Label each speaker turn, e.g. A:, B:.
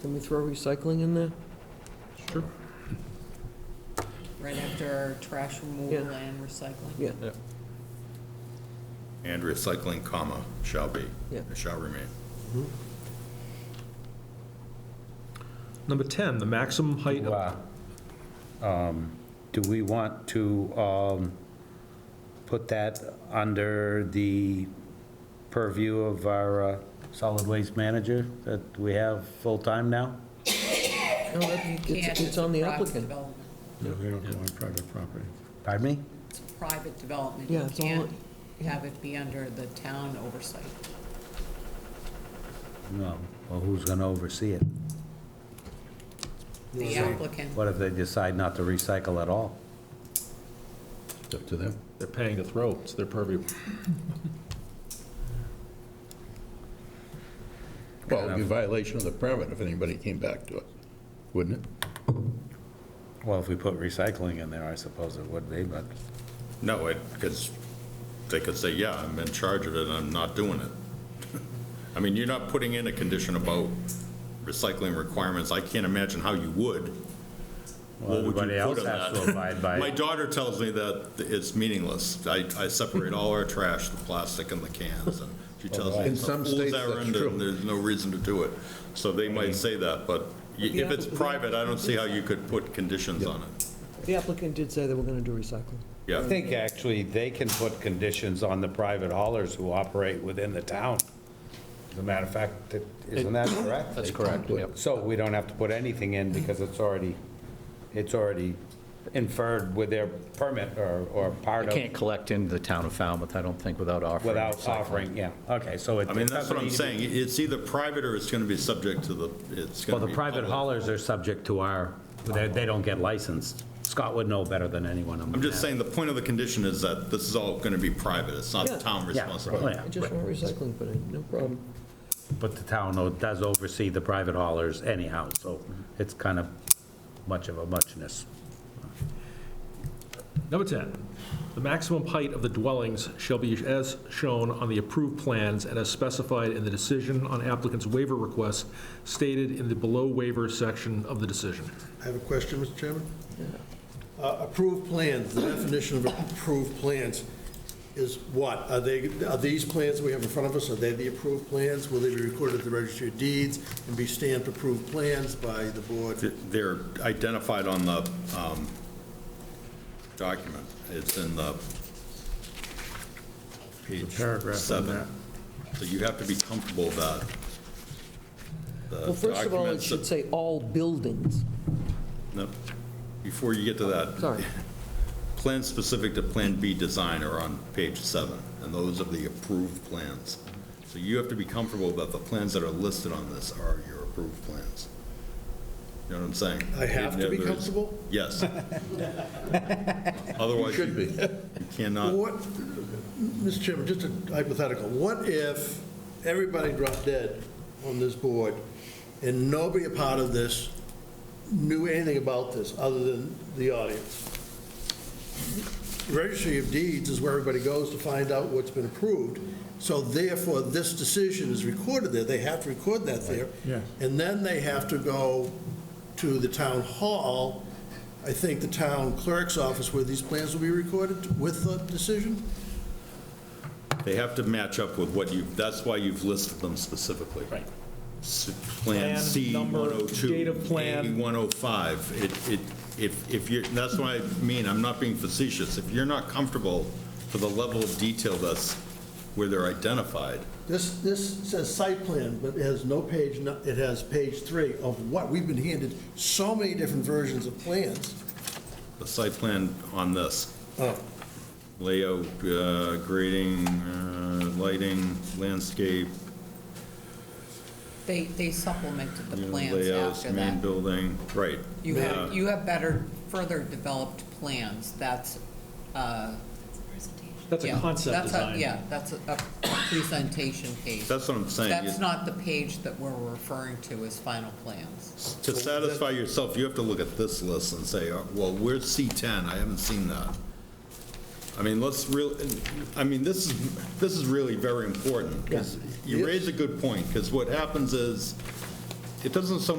A: Can we throw recycling in there?
B: Sure.
C: right after trash removal
A: Yeah.
C: and recycling.
A: Yeah.
B: And recycling, comma, shall be.
A: Yeah.
B: Shall remain.
D: Number 10, the maximum height of
E: Wow. Um, Do we want to um, put that under the purview of our uh, solid waste manager that we have full-time now?
A: No, that-
C: Can't,
A: It's, it's on the
C: a private
A: applicant.
C: development.
F: No, we don't go on private property.
E: Pardon me?
C: It's a private development.
A: Yeah,
C: You
A: it's all-
C: can't have it be under the town oversight.
E: No. Well, who's going to oversee it?
C: The applicant,
E: What if they decide not to recycle at all?
F: It's up to them.
D: They're paying to throw, it's their purview.
F: Well, it'd be a violation of the permit if anybody came back to it, wouldn't it?
E: Well, if we put recycling in there, I suppose it would be, but
B: No, it, because they could say, yeah, I'm in charge of it, and I'm not doing it. I mean, you're not putting in a condition about recycling requirements. I can't imagine how you would.
E: well,
B: What would you
E: everybody else
B: put on
E: has to
B: that?
E: abide by
B: My
E: it.
B: daughter tells me that it's meaningless. I, I separate all our trash, the plastic and the cans, and she tells me.
F: In
B: the
F: some
B: fools
F: states,
B: are
F: that's
B: into it,
F: true.
B: There's no reason to do it. So they might say that, but y-
A: the
B: if it's
A: applicant-
B: private, I don't see how you could put conditions on it.
A: The applicant did say they were gonna do recycling.
E: I
B: Yeah,
E: think actually they can put conditions on the private haulers who operate within the town. As a matter of fact, that- isn't that correct?
G: That's correct, yep.
E: So we don't have to put anything in because it's already, it's already inferred with their permit or, or
G: I
E: part
G: can't
E: of,
G: collect into the town of Falmouth, I don't think, without offering.
E: without
G: recycling.
E: offering, yeah, okay, so it.
B: I mean, that's what I'm
E: it-
B: saying. It's either private or it's going to be subject to the, it's
E: Well,
B: going to
E: the
B: be.
E: private
B: public.
E: haulers are subject to our, they, they don't get licensed. Scott would know better than anyone on
B: I'm just
E: that.
B: saying, the point of the condition is that this is all going to be private. It's not the
A: Yeah.
B: town
E: Yeah,
B: responsibility.
E: yeah,
A: I just want recycling put in, no problem.
E: But the town though, does oversee the private haulers anyhow, so it's kind of much of a muchness.
D: Number 10, the maximum height of the dwellings shall be as shown on the approved plans and as specified in the decision on applicant's waiver request stated in the below waiver section of the decision.
H: I have a question, Mr. Chairman. Uh, Approved plans, the definition of approved plans is what? Are they, are these plans we have in front of us, are they the approved plans? Will they be recorded at the registry of deeds and be stamped approved plans by the board?
B: Th- They're identified on the um, document. It's in the page
F: paragraph on
B: seven. So you have to be comfortable that the
A: Well, first of all, it
B: documents,
A: should
B: that-
A: say all buildings.
B: no, before you get to that.
A: Sorry.
B: Plans specific to Plan B design are on page seven, and those are the approved plans. So you have to be comfortable that the plans that are listed on this are your approved plans. You know what I'm saying?
H: I have to be
B: There is-
H: comfortable?
B: Yes. Otherwise,
F: Should
B: you
F: be.
B: cannot,
H: What, Mr. Chairman, just a hypothetical, what if everybody dropped dead on this board and nobody a part of this knew anything about this other than the audience? Registry of Deeds is where everybody goes to find out what's been approved, so therefore this decision is recorded there, they have to record that there.
F: Yeah.
H: And then they have to go to the town hall, I think the town clerk's office where these plans will be recorded with the decision?
B: they have to match up with what you, that's why you've listed them specifically. Right. Plan
D: Plan,
B: C
D: number,
B: 102.
D: date of plan.
B: A 105. It, it, if, if you're, that's what I mean, I'm not being facetious. If you're not comfortable for the level of detail that's, where they're identified,
H: This, this says site plan, but it has no page, nu- it has page three of what, we've been handed so many different versions of plans.
B: the site plan on this,
H: Oh,
B: layout, uh, grading, uh, lighting, landscape,
C: they, they supplemented the
B: you know,
C: plans
B: layouts,
C: after
B: main
C: that.
B: building, right.
C: You
B: Uh,
C: have, you have better, further developed plans, that's, uh.
D: That's a
C: yeah,
D: concept
C: that's a-
D: design.
C: Yeah, that's a, a presentation page.
B: That's what I'm saying.
C: That's not the page that we're referring to as final plans.
B: To satisfy yourself, you have to look at this list and say, uh, well, where's C10? I haven't seen that. I mean, let's real, I mean, this is, this is really very important, because you raise a good point, because what happens is, it doesn't so